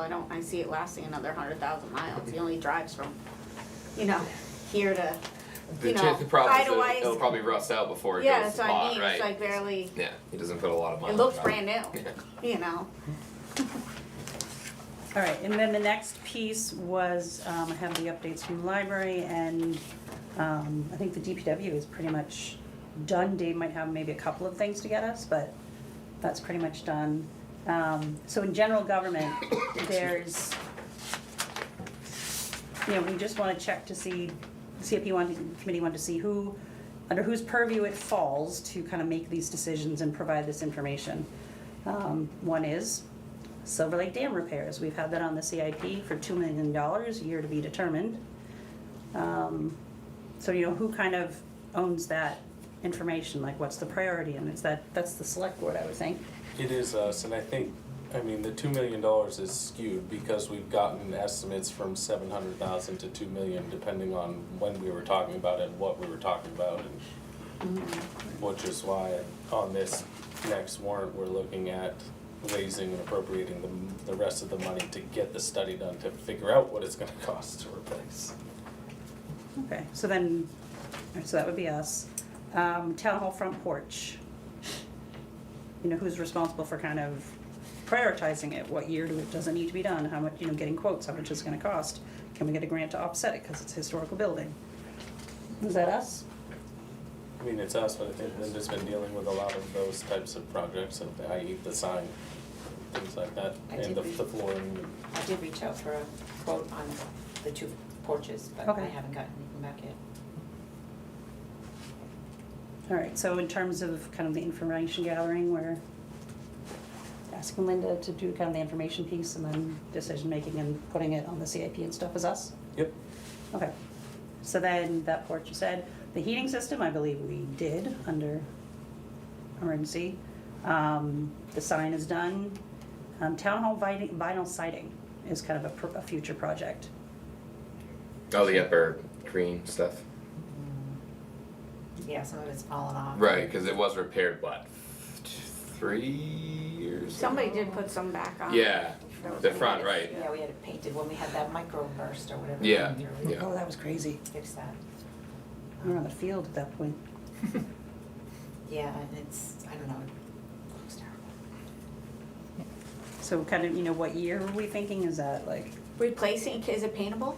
I don't, I see it lasting another hundred thousand miles, he only drives from, you know, here to, The you know, the problem is it'll, Idolize- it'll probably rust out before it yeah, that's goes to what I pot, mean, right? it's like barely, yeah, he doesn't put a lot of miles. it looks on brand Yeah. new, you know, All right, and then the next piece was, um, I have the updates from the library and, um, I think the DPW is pretty much done. Dave might have maybe a couple of things to get us, but that's pretty much done. Um, so in general government, there's, you know, we just wanna check to see, CFP wanted, committee wanted to see who, under whose purview it falls to kind of make these decisions and provide this information. Um, one is Silver Lake Dam repairs, we've had that on the CIP for two million dollars, year to be determined. Um, So, you know, who kind of owns that information, like what's the priority, and it's that, that's the select board, I would think. It is us, and I think, I mean, the two million dollars is skewed because we've gotten estimates from seven hundred thousand to two million, depending on when we were talking about it, and what we were talking about, and which is why on this next warrant, we're looking at raising and appropriating the, the rest of the money to get the study done, to figure out what it's gonna cost to replace. Okay, so then, so that would be us. Um, town hall front porch. You know, who's responsible for kind of prioritizing it, what year do it, does it need to be done, how much, you know, getting quotes, how much is it gonna cost? Can we get a grant to offset it, cause it's a historical building? Is that us? I mean, it's us, but I think Linda's been dealing with a lot of those types of projects, of the, i.e. the sign, things like that, I and did the, read- the flooring and I did reach out for a quote on the two porches, but I Okay. haven't gotten anything back yet. Alright, so in terms of kind of the information gathering, we're asking Linda to do kind of the information piece and then decision-making and putting it on the CIP and stuff is us? Yep. Okay, so then that porch you said, the heating system, I believe we did under emergency. Um, the sign is done. Um, town hall vinyl, vinyl siding is kind of a, pr- a future project. new. Oh, the upper green stuff. Yeah, some of it's fallen off. Right, because it was repaired what three years. ago? somebody did put some back on. Yeah, That was the nice. front, right? Yeah, we had it painted when we had that microburst or whatever. Yeah, came through. We yeah. Oh, that was crazy. Fixed that. Um, We were on the field at that point. Yeah, and it's, I don't know, it looks terrible. So kind of, you know, what year were we thinking? Is that like, Replacing, is it paintable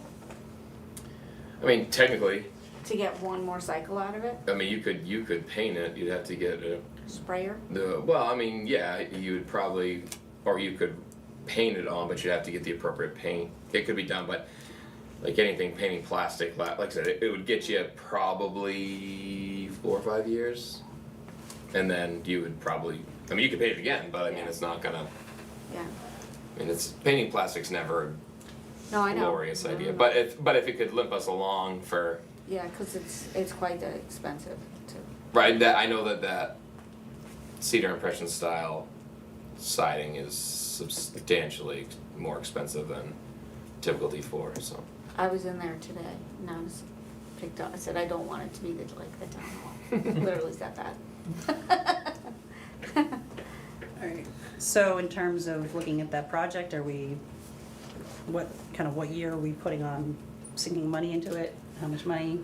I mean, technically, to get one more cycle out of it, I mean, you could you could paint it. You'd have to get a, sprayer? the well. I mean, yeah, you would probably, or you could paint it on, but you'd have to get the appropriate paint. It could be done, but like anything, painting plastic, la- like I said, it, it would get you probably four or five years, and then you would probably. I mean, you could paint it again, but I mean, Yeah. it's not gonna. Yeah, I mean, it's painting plastic's never no, Oh, I a know. Mm-hmm. glorious No, no, idea, no. but if but if it could limp us along for Yeah, cause it's, it's quite expensive to, right that I know that that cedar impression style siding is substantially more expensive than typical D4. So I was in there today and I was picked up, I said, I don't want it to be the, like the town hall, literally said that. alright, so in terms of looking at that project, are we, what, kind of what year are we putting on, sinking money into it? How much money?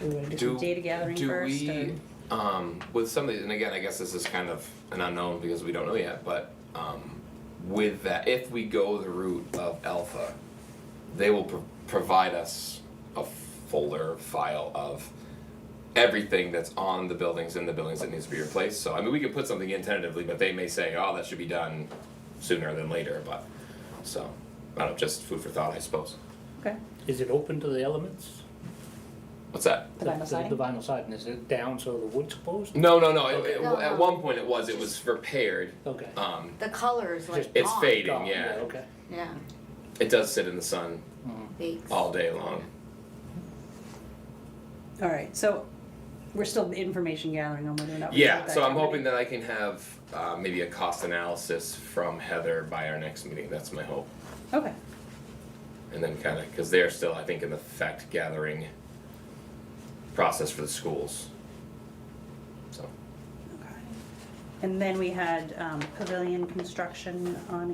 Do we want to do some data gathering do first? or- we um, with some of these, and again, I guess this is kind of an unknown because we don't know yet. But um, with that, if we go the route of Alpha, they will pro- provide us a folder file of everything that's on the buildings and the buildings that needs to be replaced. So I mean, we can put something in tentatively, but they may say, "Oh, that should be done sooner than later." But so I don't know, just food for thought, I suppose. Okay, Is it open to the elements? What's that? the vinyl The siding? vinyl siding, is it down so the wood's closed? No, no, no. it- Okay. it- No, At no. one point, it was it was repaired. Okay. Um, The color is like it's gone. fading, Gone, yeah. Okay. Yeah, It does sit in the sun bakes. all day long. Alright, so we're still information gathering on whether or not we Yeah, give that so I'm to everybody. hoping that I can have uh, maybe a cost analysis from Heather by our next meeting. That's my hope. Okay, And then kind of, because they're still, I think, in the fact gathering process for the schools. So. okay. And then we had, um, pavilion construction on